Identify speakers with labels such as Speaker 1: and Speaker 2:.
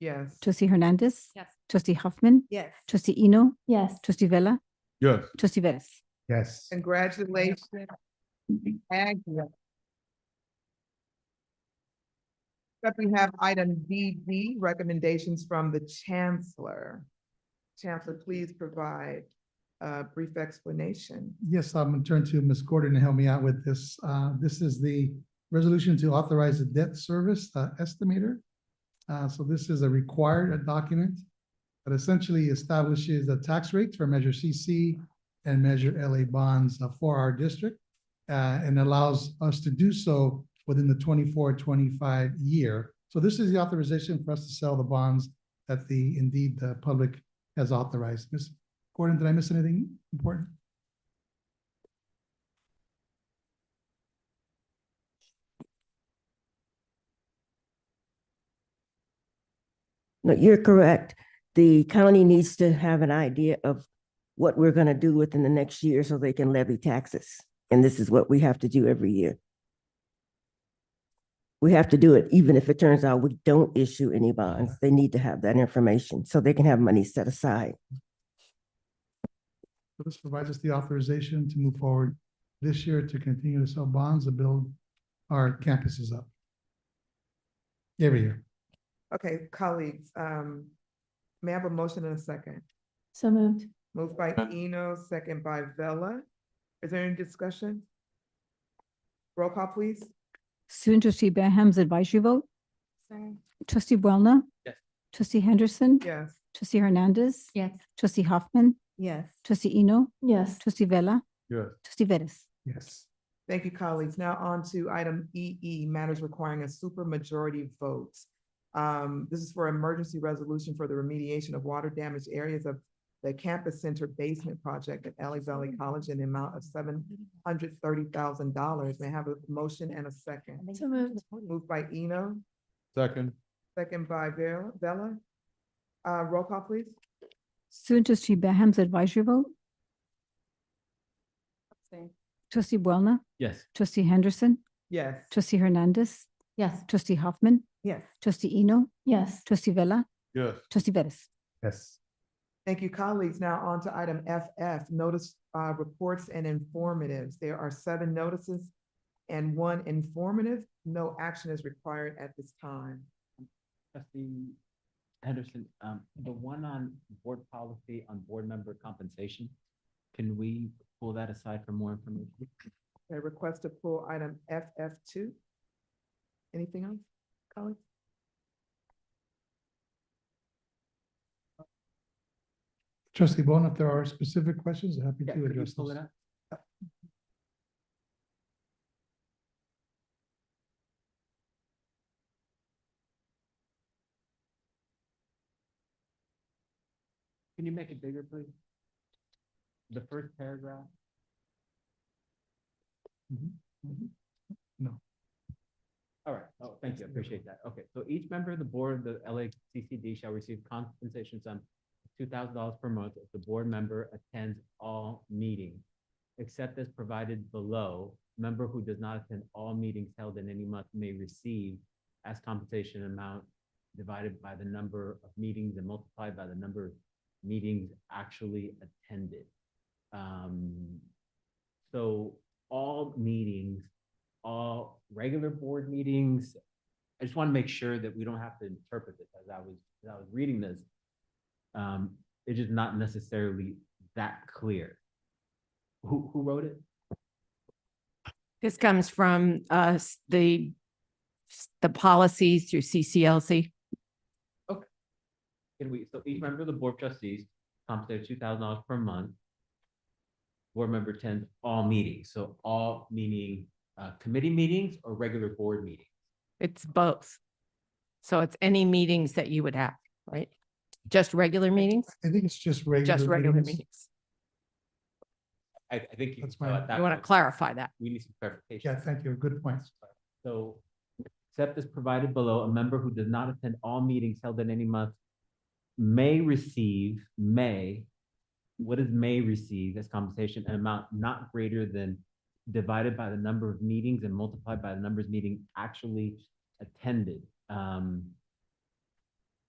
Speaker 1: Yes.
Speaker 2: Trustee Hernandez.
Speaker 3: Yes.
Speaker 2: Trustee Hoffman.
Speaker 1: Yes.
Speaker 2: Trustee Eno.
Speaker 3: Yes.
Speaker 2: Trustee Vella.
Speaker 4: Yes.
Speaker 2: Trustee Vettis.
Speaker 4: Yes.
Speaker 1: Congratulations. Agnes. Up we have item DD, recommendations from the chancellor. Chancellor, please provide a brief explanation.
Speaker 5: Yes, I'm going to turn to Ms. Gordon to help me out with this. Uh, This is the resolution to authorize the debt service uh, estimator. Uh, So this is a required document that essentially establishes the tax rates for Measure CC and Measure LA bonds uh, for our district uh, and allows us to do so within the 24-25 year. So this is the authorization for us to sell the bonds that the, indeed, the public has authorized. Ms. Gordon, did I miss anything important?
Speaker 6: No, you're correct. The county needs to have an idea of what we're going to do within the next year so they can levy taxes. And this is what we have to do every year. We have to do it even if it turns out we don't issue any bonds. They need to have that information so they can have money set aside.
Speaker 5: So this provides us the authorization to move forward this year to continue to sell bonds to build our campuses up. Every year.
Speaker 1: Okay, colleagues, um, may I have a motion and a second?
Speaker 3: So moved.
Speaker 1: Moved by Eno, second by Vella. Is there any discussion? Roll call, please.
Speaker 2: Student trustee Benham's advisory vote. Trustee Boulna.
Speaker 4: Yes.
Speaker 2: Trustee Henderson.
Speaker 1: Yes.
Speaker 2: Trustee Hernandez.
Speaker 3: Yes.
Speaker 2: Trustee Hoffman.
Speaker 1: Yes.
Speaker 2: Trustee Eno.
Speaker 3: Yes.
Speaker 2: Trustee Vella.
Speaker 4: Yes.
Speaker 2: Trustee Vettis.
Speaker 5: Yes.
Speaker 1: Thank you, colleagues. Now on to item EE, matters requiring a supermajority vote. Um, this is for emergency resolution for the remediation of water damaged areas of the campus center basement project at Ellie Valley College in the amount of seven hundred thirty thousand dollars. May I have a motion and a second?
Speaker 3: So moved.
Speaker 1: Moved by Eno,
Speaker 4: Second.
Speaker 1: second by Vera, Bella. Uh, roll call, please.
Speaker 2: Student trustee Benham's advisory vote. Trustee Boulna.
Speaker 4: Yes.
Speaker 2: Trustee Henderson.
Speaker 1: Yes.
Speaker 2: Trustee Hernandez.
Speaker 3: Yes.
Speaker 2: Trustee Hoffman.
Speaker 1: Yes.
Speaker 2: Trustee Eno.
Speaker 3: Yes.
Speaker 2: Trustee Vella.
Speaker 4: Yes.
Speaker 2: Trustee Vettis.
Speaker 5: Yes.
Speaker 1: Thank you, colleagues. Now on to item FF, notice uh, reports and informatives. There are seven notices and one informative. No action is required at this time.
Speaker 7: Trustee Henderson, um, the one on board policy on board member compensation, can we pull that aside for more information?
Speaker 1: I request to pull item FF two. Anything else, colleagues?
Speaker 5: Trustee Bone, if there are specific questions, happy to
Speaker 7: Yeah, could you
Speaker 5: address
Speaker 7: pull
Speaker 5: those.
Speaker 7: it up? Can you make it bigger, please? The first paragraph?
Speaker 5: No.
Speaker 7: All right, oh, thank you, I appreciate that. Okay, so each member of the board of the LACCD shall receive compensation sum two thousand dollars per month if the board member attends all meetings, except as provided below. Member who does not attend all meetings held in any month may receive as compensation amount divided by the number of meetings and multiplied by the number of meetings actually attended. Um, so all meetings, all regular board meetings, I just want to make sure that we don't have to interpret this as I was, as I was reading this. Um, it's just not necessarily that clear. Who, who wrote it?
Speaker 8: This comes from us, the, s- the policies through CCLC.
Speaker 7: Can we, so each member of the board of trustees compensated two thousand dollars per month. Board member attends all meetings, so all meaning, uh, committee meetings or regular board meetings.
Speaker 8: It's both. So it's any meetings that you would have, right? Just regular meetings,
Speaker 5: I think it's just regular.
Speaker 8: just regular
Speaker 5: meetings.
Speaker 8: meetings.
Speaker 7: I, I think you.
Speaker 5: That's
Speaker 7: can go
Speaker 5: fine.
Speaker 7: at that
Speaker 8: You want
Speaker 7: point.
Speaker 8: to clarify that.
Speaker 7: We need some clarification.
Speaker 5: Yeah, thank you. Good point.
Speaker 7: So, except as provided below, a member who does not attend all meetings held in any month may receive, may, what is may receive as compensation, an amount not greater than divided by the number of meetings and multiplied by the numbers meeting actually attended. Um,